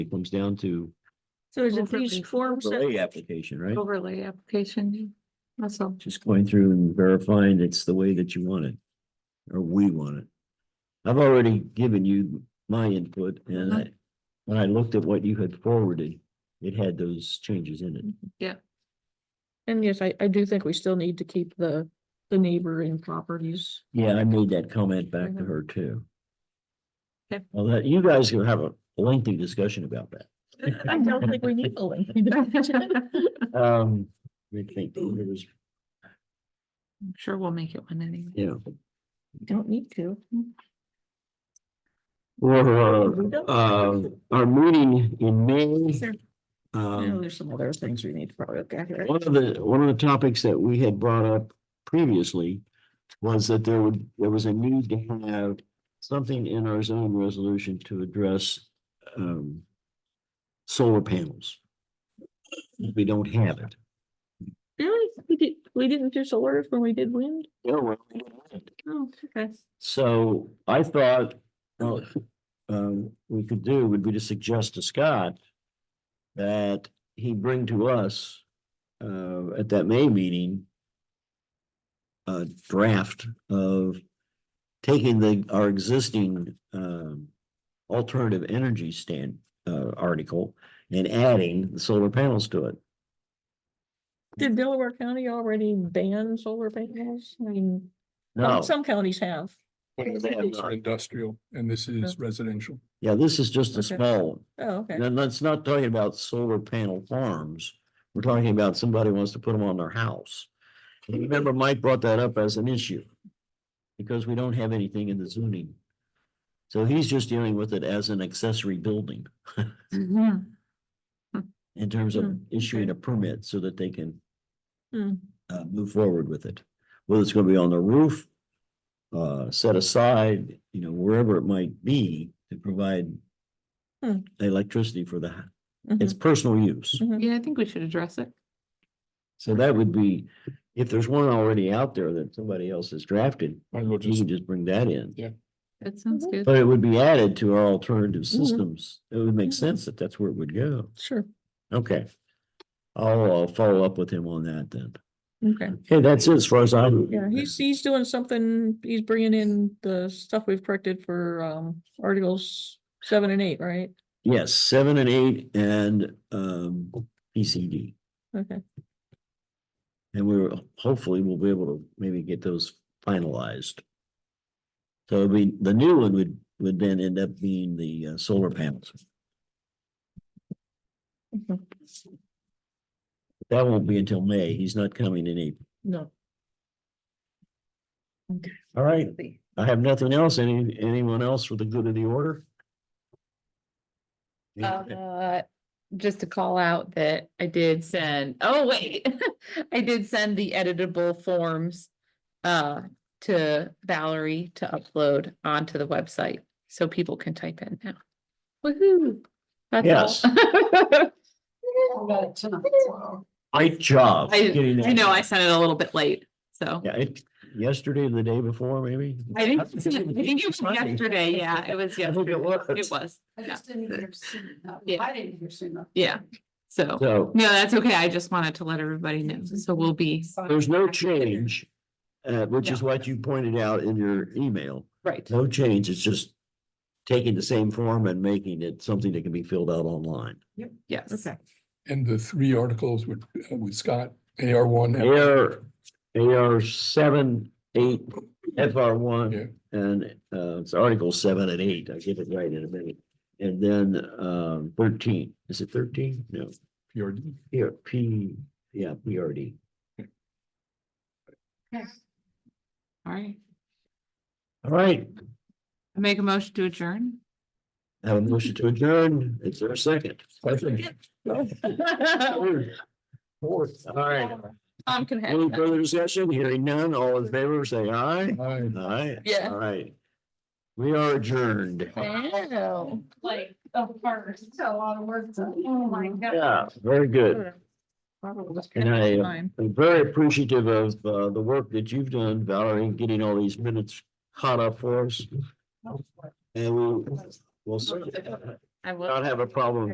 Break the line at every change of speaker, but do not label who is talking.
It comes down to
So is it
Overlay.
these forms
overlay
that
application, right?
overlay application? That's all.
Just going through and verifying it's the way that you want it, or we want it. I've already given you my input
Uh-huh.
and I, when I looked at what you had forwarded, it had those changes in it.
Mm-hmm.
And yes, I, I do think we still need to keep the, the neighboring properties.
Yeah, I made that comment back to her too.
Mm-hmm. Okay.
Well, that, you guys can have a lengthy discussion about that.
Uh, I don't think we need a link.
Um, let me think, there was,
I'm sure we'll make it one anyway.
yeah.
Don't need to.
Or,
We don't.
um, our meeting in May,
There- I know
um,
There's some other things we need to probably look at here.
one of the, one of the topics that we had brought up previously was that there would, there was a need to have something in our zoning resolution to address, um, solar panels. We don't have it.
Really? We did, we didn't do solar when we did wind?
Yeah, well, we don't have it.
Oh, okay.
So I thought, well, um, we could do would be to suggest to Scott that he bring to us, uh, at that May meeting, a draft of taking the, our existing, um, alternative energy stand, uh, article and adding the solar panels to it.
Did Delaware County already ban solar panels? I mean,
No,
some counties have.
Yeah,
Those
they have
are
not.
Industrial, and this is residential.
yeah, this is just a
Okay.
small one.
Oh, okay.
And that's not talking about solar panel farms. We're talking about somebody wants to put them on their house. And Remember, Mike brought that up as an issue. Because we don't have anything in the zoning. So he's just dealing with it as an accessory building
Mhm.
in terms of
Hmm,
issuing a permit so that they can
Hmm.
uh, move forward with it. Whether it's gonna be on the roof, uh, set aside, you know, wherever it might be to provide
Hmm.
electricity for the, hou-
Mhm.
it's personal use.
Mm-hmm.
Yeah, I think we should address it.
So that would be, if there's one already out there that somebody else has drafted,
Might as well
you
just,
can just bring that in.
Yeah.
That sounds
Mhm.
Mm-hmm.
good.
But it would be added to our alternative
Mm-hmm.
systems. It would make sense that that's where it would go.
Sure.
Okay. I'll, uh follow up with him on that then.
Okay.
Okay, that's it as far as I'm.
Yeah, he's, he's doing something, he's bringing in the stuff we've corrected for, um, articles seven and eight, right?
Yes, seven and eight and, um, PCD.
Okay,
And we we're, hopefully we'll be able to maybe get those finalized. So it'd be the new one would, would then end up being the uh, solar panels. That won't be until May. He's not coming in April.
no.
All right, I have nothing else. Any, anyone else for the good of the order?
Uh, just to call out that I did send, oh, wait, I did send the editable forms. Uh, to Valerie to upload onto the website, so people can type in now. Woohoo. That's all.
Great job.
I-
getting that.
I know I sent it a little bit late, so.
Yeah, it, yesterday, or the day before, maybe?
I think, I think it was
Funny.
yesterday, yeah, it was
I think
yesterday,
it
it
was.
was,
I
just
didn't hear soon enough.
Yeah.
I didn't hear soon enough.
yeah, so.
So
No, that's okay, I just wanted to let everybody know, so we'll be,
there's no change, uh, which is what you pointed out in your email.
right,
No change, it's just taking the same form and making it something that can be filled out online.
yes.
and the three articles with, uh, with Scott, AR one.
AR, AR seven, eight, FR
Yeah.
one, and uh, it's Article seven and eight, I'll get it right in a minute. And then um thirteen, is it thirteen? No,
PRD.
here, P, yeah, PRD.
All right,
All right,
I make a motion to adjourn.
I have a motion to adjourn, it's our second. Third. Fourth, all right,
Tom can have
any
that.
further discussion, hearing none, all in favor, say aye.
Hi.
Aye.
Yeah.
All right. We are adjourned.
Wow.
Like, of course, it's a lot of work. to- Oh, my God.
Yeah, very good.
Oh,
Probably just
And
put
I,
it
uh,
online.
I'm very appreciative of uh the work that you've done, Valerie, in getting all these minutes caught up for us. And we will certainly
I will.
not have a problem